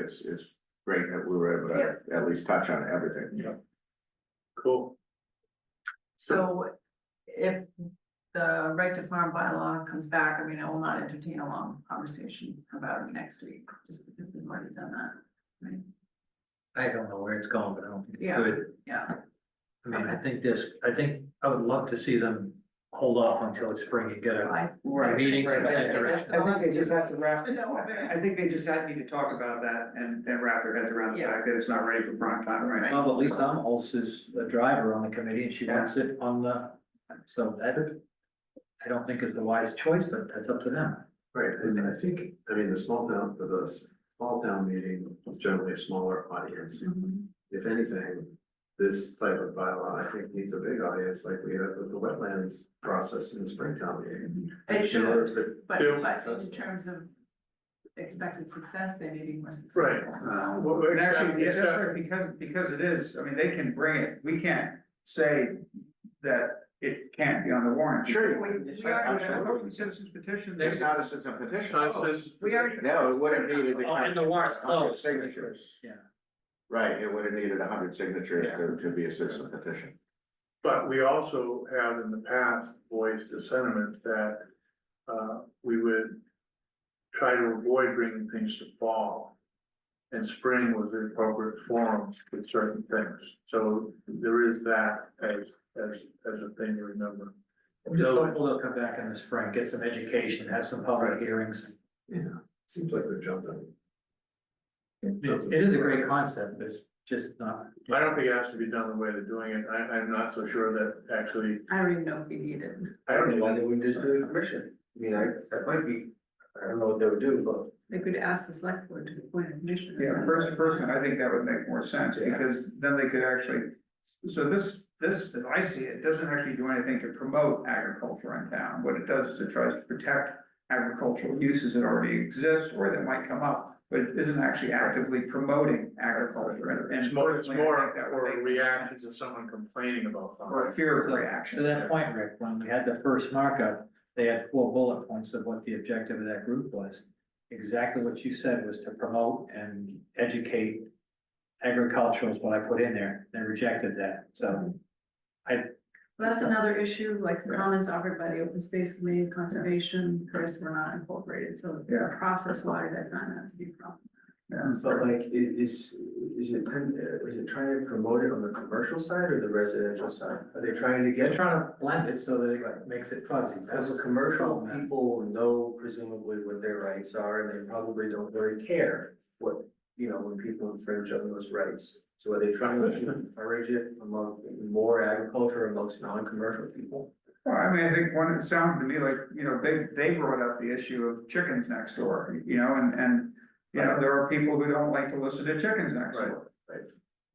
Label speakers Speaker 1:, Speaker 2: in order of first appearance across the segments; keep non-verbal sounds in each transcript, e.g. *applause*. Speaker 1: it's, it's great that we were able to at least touch on everything.
Speaker 2: Yeah. Cool.
Speaker 3: So if the right to farm bylaw comes back, I mean, I will not entertain a long conversation about it next week, just because we've already done that. right?
Speaker 4: I don't know where it's going, but I don't think it's
Speaker 3: Yeah.
Speaker 4: good.
Speaker 3: Yeah,
Speaker 4: I mean, I think this, I think, I would love to see them hold off until it's spring and get a,
Speaker 3: I.
Speaker 2: Right,
Speaker 4: meeting
Speaker 2: right,
Speaker 4: and
Speaker 2: right.
Speaker 4: interaction.
Speaker 2: I think they just have to wrap,
Speaker 3: To no
Speaker 2: I
Speaker 3: avail.
Speaker 2: think they just had, need to talk about that and, and wrap their heads around the fact that it's not ready for prime time right now.
Speaker 4: well, at least I'm Alsa's the driver on the committee and she wants it on the, so that is. I don't think is the wise choice, but that's up to them.
Speaker 5: Right, and I think, I mean, the small town, for the small town meeting is generally a smaller audience.
Speaker 2: Mm-hmm.
Speaker 3: Mhm.
Speaker 5: If anything, this type of bylaw, I think, needs a big audience like we have with the wetlands process in the spring town meeting.
Speaker 3: It should,
Speaker 5: Sure,
Speaker 3: but
Speaker 2: Feel
Speaker 3: but in
Speaker 5: successful.
Speaker 3: terms of expected success, they need to be more
Speaker 2: Right.
Speaker 3: successful. Um,
Speaker 2: And actually, yeah, that's right, because, because it is, I mean, they can bring it, we can't say that it can't be on the warrant.
Speaker 1: Sure.
Speaker 3: we
Speaker 2: We already
Speaker 3: already-
Speaker 2: have a voting citizens petition.
Speaker 1: There's not a system petition.
Speaker 3: We already.
Speaker 1: No, it would have needed the.
Speaker 4: Oh, and the warrant's
Speaker 1: hundred
Speaker 4: closed.
Speaker 1: Signatures.
Speaker 4: Yeah.
Speaker 1: Right, it would have needed a hundred signatures to, to be a system petition.
Speaker 6: But we also have in the past voiced a sentiment that uh, we would try to avoid bringing things to fall. And spring was the appropriate forum with certain things. So there is that as, as, as a thing to remember.
Speaker 4: I'm just hopeful they'll come back in the spring, get some education, have some public hearings.
Speaker 5: Yeah, seems like they're jumping.
Speaker 4: It it is a great concept, but it's just not.
Speaker 6: I don't think it has to be done the way they're doing it. I, I'm not so sure that actually,
Speaker 3: I don't even know if we need it.
Speaker 6: I don't know.
Speaker 5: they wouldn't just do a commission. I mean, I, that might be, I don't know what they would do, but
Speaker 3: They could ask the select board to appoint a commissioner.
Speaker 2: Yeah, first person, I think that would make more sense,
Speaker 5: Yeah.
Speaker 2: because then they could actually, so this, this, as I see it, doesn't actually do anything to promote agriculture in town. What it does is it tries to protect agricultural uses that already exist or that might come up, but it isn't actually actively promoting agriculture and. and
Speaker 6: It's more, it's
Speaker 2: personally, I
Speaker 6: more
Speaker 2: think that would
Speaker 6: or
Speaker 2: make
Speaker 6: a
Speaker 2: more
Speaker 6: reaction
Speaker 2: sense.
Speaker 6: to someone complaining about something.
Speaker 2: Or fear of
Speaker 4: To
Speaker 2: reaction.
Speaker 4: that point, Rick, when we had the first markup, they had four bullet points of what the objective of that group was. Exactly what you said was to promote and educate agriculture is what I put in there. They rejected that, so.
Speaker 3: That's another issue, like the comments offered by the open space committee, conservation, first were not incorporated, so
Speaker 2: Yeah.
Speaker 3: process wise, I find that to be a problem.
Speaker 2: Yeah.
Speaker 5: But like, i- is, is it, trying- uh, is it trying to promote it on the commercial side or the residential side? Are they trying to
Speaker 4: They're
Speaker 5: get,
Speaker 4: trying to blend it so that it makes it fuzzy.
Speaker 5: as a commercial, people know presumably what their rights are, and they probably don't really care what, you know, when people infringe on those rights. So are they trying to encourage it among more agriculture amongst non-commercial people?
Speaker 2: Well, I mean, I think one, it sounded to me like, you know, they, they brought up the issue of chickens next door, you know, and, and, you know, there are people who don't like to listen to chickens next door. Um,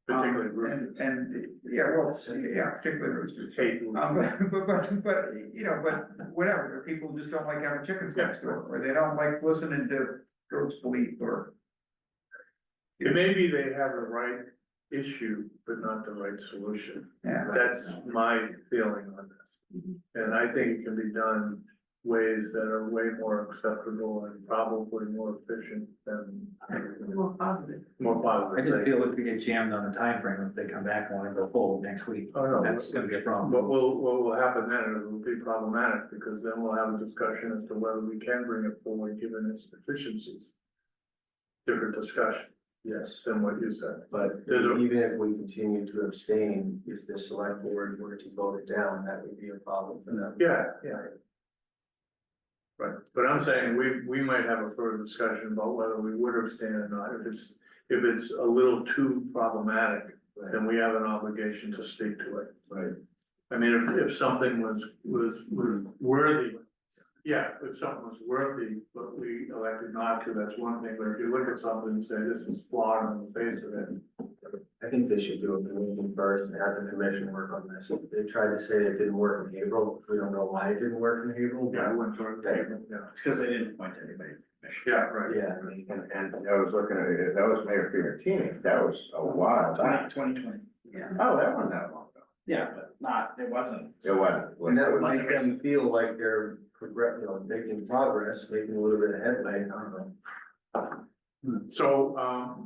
Speaker 6: Particularly roosters.
Speaker 2: And, and, yeah, well, yeah, particularly roosters.
Speaker 6: Hate roosters.
Speaker 2: Um, *laughs* but, but, but, you know, but whatever, there are people who just don't like having chickens next door, or they don't like listening to goats bleat, or,
Speaker 6: It may be they have the right issue, but not the right solution.
Speaker 2: yeah.
Speaker 6: That's my feeling on this.
Speaker 4: Mm-hmm.
Speaker 6: And I think it can be done ways that are way more acceptable and probably more efficient than
Speaker 3: More positive.
Speaker 6: more
Speaker 4: I just
Speaker 6: positive.
Speaker 4: feel if we get jammed on the time frame, if they come back and want to go forward next week,
Speaker 6: Oh, no.
Speaker 4: that's gonna be a
Speaker 6: But
Speaker 4: problem.
Speaker 6: will, what will happen then, it will be problematic because then we'll have a discussion as to whether we can bring it forward, given its deficiencies. Different discussion
Speaker 5: Yes.
Speaker 6: than what you said.
Speaker 5: But
Speaker 6: There's a-
Speaker 5: even if we continue to abstain, if the select board were to vote it down, that would be a problem for them.
Speaker 6: Yeah, yeah. Right, but I'm saying we, we might have a further discussion about whether we would abstain or not. If it's, if it's a little too problematic, then we have an obligation to speak to it.
Speaker 5: Right.
Speaker 6: I mean, if, if something was, was was worthy, yeah, if something was worthy, but we elected not to, that's one thing. But if you look at something and say, this is flawed on the face of it,
Speaker 5: I think they should do a meeting first and have the commission work on this. They tried to say it didn't work in April. We don't know why it didn't work in April.
Speaker 6: yeah, I
Speaker 5: but-
Speaker 6: went through it, yeah,
Speaker 2: Because they didn't appoint anybody.
Speaker 6: yeah, right.
Speaker 5: Yeah, I mean,
Speaker 1: And, and I was looking at it, that was Mayor Fiorentini, that was a while back.
Speaker 2: twenty twenty.
Speaker 3: Yeah.
Speaker 1: Oh, that wasn't that long ago.
Speaker 2: Yeah, but not, it wasn't.
Speaker 1: It wasn't.
Speaker 5: and that would
Speaker 2: Lots of
Speaker 5: make them feel like they're progress, you know, making progress, making a little bit of headway. I don't know.
Speaker 6: So, um,